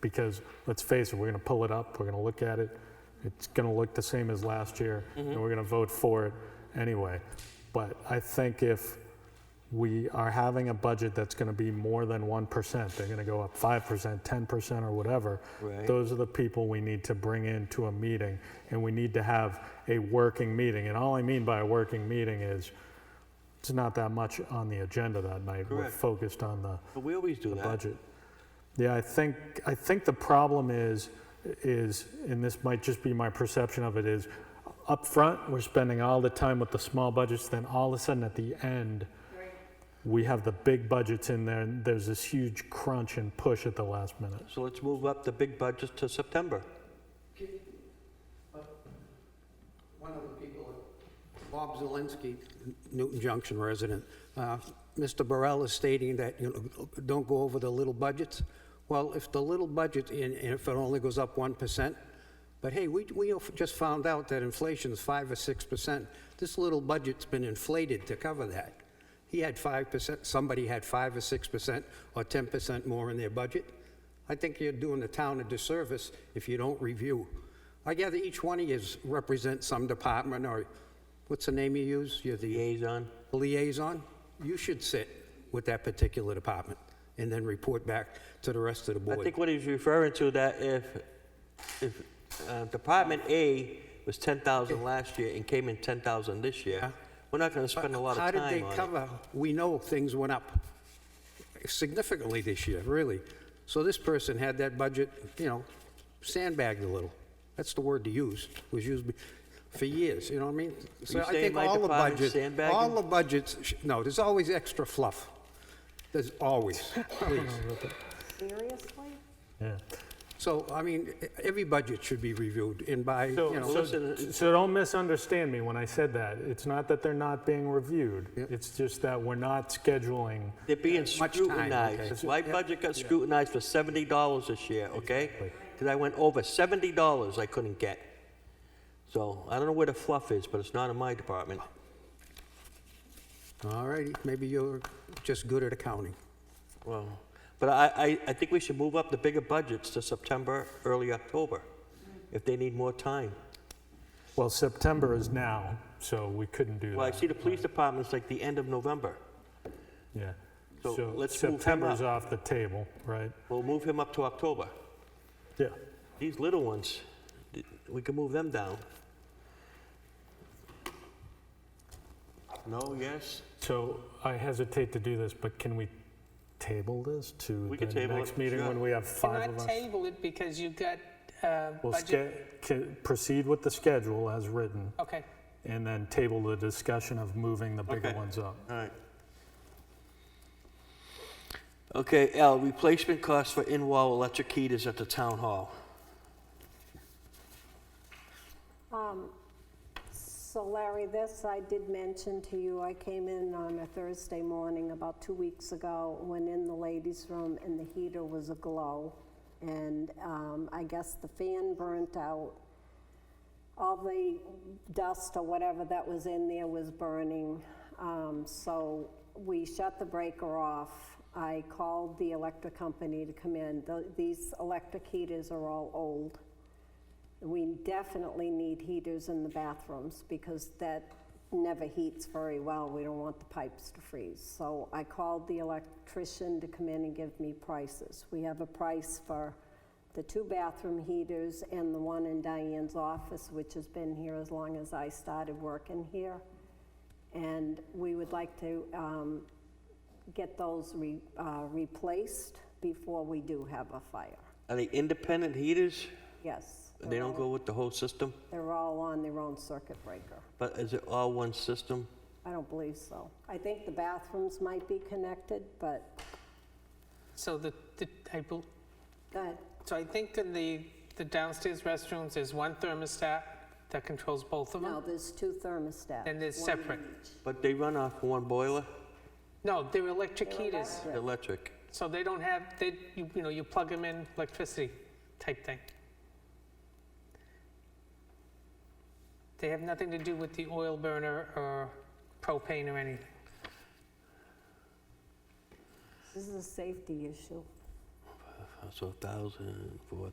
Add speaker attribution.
Speaker 1: because let's face it, we're going to pull it up, we're going to look at it, it's going to look the same as last year,
Speaker 2: Mm-hmm.
Speaker 1: and we're going to vote for it anyway. But I think if we are having a budget that's going to be more than 1%, they're going to go up 5%, 10%, or whatever,
Speaker 2: Right.
Speaker 1: those are the people we need to bring into a meeting, and we need to have a working meeting. And all I mean by a working meeting is, it's not that much on the agenda that night. We're
Speaker 2: Correct.
Speaker 1: focused on the
Speaker 2: But we always do
Speaker 1: the
Speaker 2: that.
Speaker 1: budget. Yeah, I think, I think the problem is, is, and this might just be my perception of it, is up front we're spending all the time with the small budgets, then all of a sudden at the end, we have the big budgets in there, and there's this huge crunch and push at the last minute.
Speaker 2: So let's move up the big budget to September.
Speaker 3: One of the people, Bob Zelinski, Newton Junction resident, uh, Mr. Burrell is stating that, you know, don't go over the little budgets. Well, if the little budget, and and if it only goes up 1%, but hey, we, we just found out that inflation's 5 or 6%. This little budget's been inflated to cover that. He had 5%, somebody had 5 or 6% or 10% more in their budget. I think you're doing the town a disservice if you don't review. I gather each one of yous represents some department or, what's the name you use? You're the
Speaker 2: Liaison.
Speaker 3: liaison? You should sit with that particular department and then report back to the rest of the
Speaker 2: I
Speaker 3: board.
Speaker 2: think what he's referring to that if, if uh, Department A was 10,000 last year and came in 10,000 this
Speaker 3: Yeah.
Speaker 2: year, we're not going to spend a lot of
Speaker 3: How did
Speaker 2: time
Speaker 3: they
Speaker 2: on it.
Speaker 3: cover, we know things went up significantly this year, really. So this person had that budget, you know, sandbagged a little. That's the word to use, was used be- for years, you know what I mean? So
Speaker 2: you
Speaker 3: I
Speaker 2: saying
Speaker 3: think
Speaker 2: my
Speaker 3: all the
Speaker 2: department's
Speaker 3: budgets,
Speaker 2: sandbagging?
Speaker 3: All the budgets, sh- no, there's always extra fluff. There's always, please.
Speaker 4: Seriously?
Speaker 1: Yeah.
Speaker 3: So, I mean, e- every budget should be reviewed and by, you
Speaker 1: So,
Speaker 3: know.
Speaker 1: so-
Speaker 2: listen,
Speaker 1: so don't misunderstand me when I said that. It's not that they're not being reviewed. It's just that we're not scheduling.
Speaker 2: They're being
Speaker 3: Much time,
Speaker 2: scrutinized.
Speaker 3: okay.
Speaker 2: My budget got scrutinized for $70 this year, okay? Because I went over $70 I couldn't get. So I don't know where the fluff is, but it's not in my department.
Speaker 3: All righty, maybe you're just good at accounting.
Speaker 2: Well, but I, I, I think we should move up the bigger budgets to September, early October, if they need more time.
Speaker 1: Well, September is now, so we couldn't do that.
Speaker 2: Well, I see the police department's like the end of November.
Speaker 1: Yeah.
Speaker 2: So
Speaker 1: So
Speaker 2: let's move him
Speaker 1: September's
Speaker 2: up.
Speaker 1: off the table, right?
Speaker 2: We'll move him up to October.
Speaker 1: Yeah.
Speaker 2: These little ones, th- we can move them down. No, yes?
Speaker 1: So I hesitate to do this, but can we table this to
Speaker 2: We can
Speaker 1: the
Speaker 2: table
Speaker 1: next
Speaker 2: it,
Speaker 1: meeting
Speaker 2: sure.
Speaker 1: when we have five
Speaker 5: Cannot
Speaker 1: of us?
Speaker 5: table it because you've got uh,
Speaker 1: We'll
Speaker 5: budget.
Speaker 1: ske- ca- proceed with the schedule as written
Speaker 5: Okay,
Speaker 1: and then table the discussion of moving the bigger
Speaker 2: Okay.
Speaker 1: ones up.
Speaker 2: All right. Okay, L, replacement cost for in-wall electric heaters at the town hall.
Speaker 4: So Larry, this I did mention to you, I came in on a Thursday morning about two weeks ago, went in the ladies' room and the heater was aglow. And um, I guess the fan burnt out. All the dust or whatever that was in there was burning. Um, So we shut the breaker off. I called the electric company to come in. Tho- These electric heaters are all old. We definitely need heaters in the bathrooms because that never heats very well. We don't want the pipes to freeze. So I called the electrician to come in and give me prices. We have a price for the two bathroom heaters and the one in Diane's office, which has been here as long as I started working here. And we would like to um, get those re- uh, replaced before we do have a fire.
Speaker 2: Are they independent heaters?
Speaker 4: Yes.
Speaker 2: They don't go with the whole system?
Speaker 4: They're all on their own circuit breaker.
Speaker 2: But is it all one system?
Speaker 4: I don't believe so. I think the bathrooms might be connected, but,
Speaker 5: so the, the, I bel-
Speaker 4: go ahead.
Speaker 5: so I think in the, the downstairs restrooms, there's one thermostat that controls both of them?
Speaker 4: No, there's two thermostats.
Speaker 5: And they're
Speaker 4: One-
Speaker 5: separate?
Speaker 2: But they run off one boiler,
Speaker 5: No, they're electric heaters,
Speaker 2: electric.
Speaker 5: so they don't have, they, you you know, you plug them in, electricity type thing. They have nothing to do with the oil burner or propane or anything.
Speaker 4: This is a safety issue.
Speaker 2: so 1,000, 4,000.